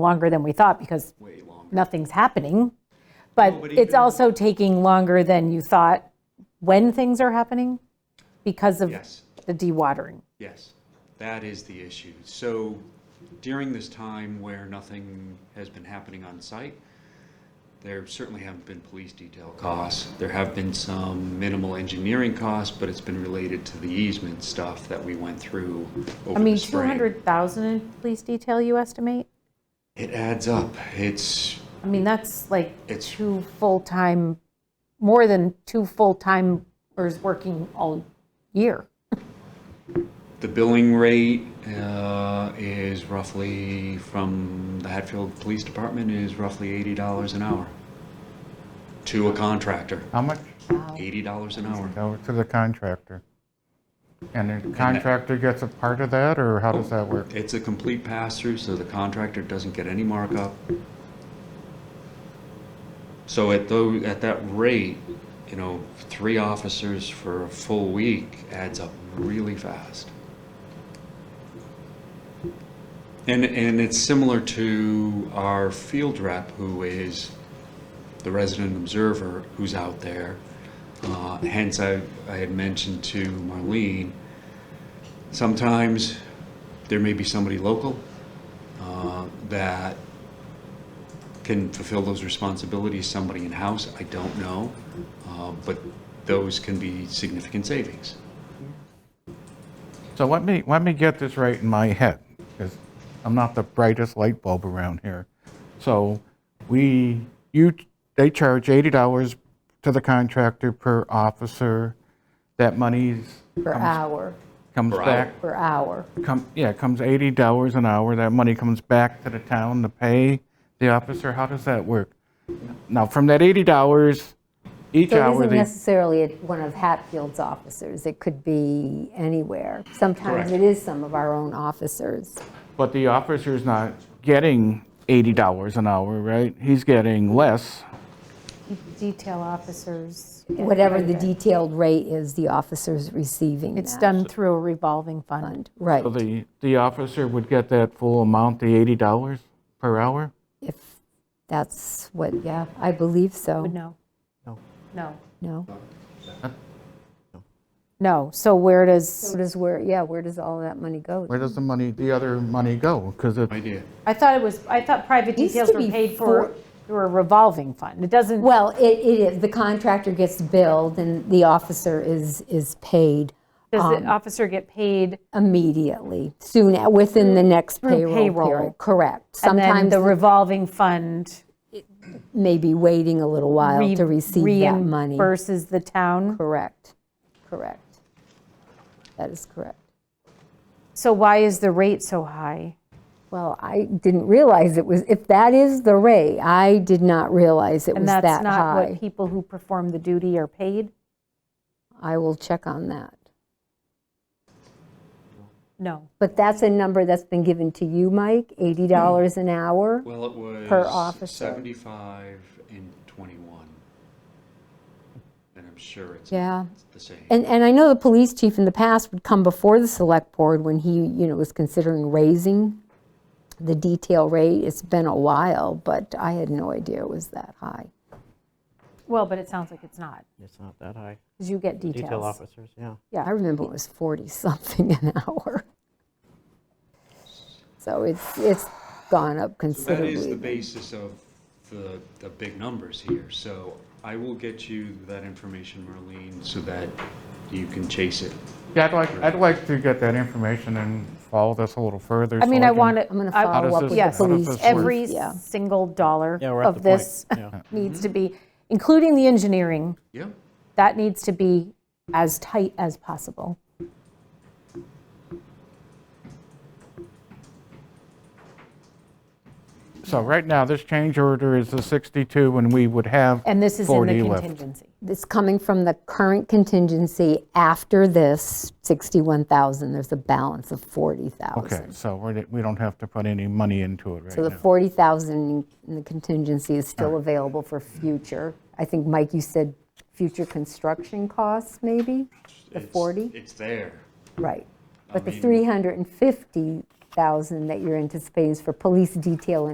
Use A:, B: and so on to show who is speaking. A: longer than we thought because
B: way longer.
A: nothing's happening. But
B: No, but
A: it's
B: even-
A: also taking longer than you thought when things are happening because of
B: Yes.
A: the dewatering.
B: Yes, that is the issue. So during this time where nothing has been happening on site, there certainly haven't been police detail costs. There have been some minimal engineering costs, but it's been related to the easement stuff that we went through over
A: I mean,
B: the spring.
A: 200,000 in police detail, you estimate?
B: It adds up. It's,
A: I mean, that's like
B: It's-
A: two full-time, more than two full-timers working all year.
B: the billing rate uh, is roughly, from the Hatfield Police Department, is roughly $80 an hour to a contractor.
C: How much?
B: $80 an hour.
C: Go to the contractor. And the contractor gets a part of that, or how does that work?
B: It's a complete pass-through, so the contractor doesn't get any markup. So at though, at that rate, you know, three officers for a full week adds up really fast. And, and it's similar to our field rep, who is the resident observer who's out there. Uh, Hence, I, I had mentioned to Marlene, sometimes there may be somebody local uh, that can fulfill those responsibilities, somebody in-house, I don't know, uh, but those can be significant savings.
C: So let me, let me get this right in my head, because I'm not the brightest light bulb around here. So we, you, they charge $80 to the contractor per officer. That money
A: Per hour,
C: comes
B: Per hour.
C: back,
A: per hour.
C: come, yeah, comes $80 an hour. That money comes back to the town to pay the officer. How does that work? Now, from that $80, each
D: So
C: hour,
D: it isn't
C: they
D: necessarily at one of Hatfield's officers, it could be anywhere. Sometimes
B: Correct.
D: it is some of our own officers.
C: But the officer's not getting eighty dollars an hour, right? He's getting less.
A: Detail officers.
D: Whatever the detailed rate is, the officer's receiving
A: It's
D: that
A: done through a revolving fund.
D: fund. Right,
C: So the, the officer would get that full amount, the eighty dollars per hour?
D: if that's what, yeah, I believe so,
A: No. No.
D: no?
A: No, so where does,
D: So does where, yeah, where does all that money go?
C: Where does the money, the other money go? Because it's,
B: Idea.
A: I thought it was, I thought private
D: Used
A: details
D: to
A: were
D: be
A: paid for
D: four-
A: through a revolving fund. It doesn't,
D: Well, it, it is, the contractor gets billed and the officer is, is paid
A: does
D: um,
A: the officer get paid?
D: immediately, soon, a- within the next payroll
A: payroll.
D: period. Correct.
A: And then
D: Sometimes
A: the revolving fund
D: maybe waiting a little while
A: re-
D: to receive that money.
A: reimburses the town.
D: Correct, correct. That is correct.
A: So why is the rate so high?
D: Well, I didn't realize it was, if that is the rate, I did not realize it was
A: And that's
D: that
A: not what
D: high.
A: people who perform the duty are paid?
D: I will check on that.
A: No.
D: But that's a number that's been given to you, Mike, $80 an hour?
B: Well, it was.
D: Per officer.
B: 75 and 21. And I'm sure it's
D: Yeah.
B: the same.
D: And, and I know the police chief in the past would come before the select board when he, you know, was considering raising the detail rate. It's been a while, but I had no idea it was that high.
A: Well, but it sounds like it's not,
E: It's not that high.
A: because you get
E: Detail
A: details.
E: officers, yeah.
D: I remember it was 40-something an hour. So it's, it's gone up
B: That is the
D: considerably.
B: basis of the, the big numbers here, so I will get you that information, Marlene, so that you can chase it.
C: yeah, I'd like, I'd like to get that information and follow this a little further.
A: I
C: so
A: mean, I
C: can-
A: want to.
D: I'm going to follow up
C: this-
D: with
C: how
D: the
C: does
D: police.
C: this work?
A: Every
D: Yeah.
A: single dollar
E: Yeah, we're at
A: of
E: the point,
A: this
E: yeah.
A: needs to be, including the engineering,
B: Yeah,
A: that needs to be as tight as possible.
C: So right now, this change order is the sixty-two, and we would have
A: And this is in the
C: 40 left.
A: contingency.
D: It's coming from the current contingency after this, 61,000. There's a balance of 40,000.
C: Okay, so we're, we don't have to put any money into it right
D: So the
C: now.
D: 40,000 in the contingency is still available for future. I think, Mike, you said future construction costs, maybe? The
B: It's-
D: 40?
B: It's there.
D: Right. But the
B: mean-
D: 350,000 that you're anticipating is for police detail and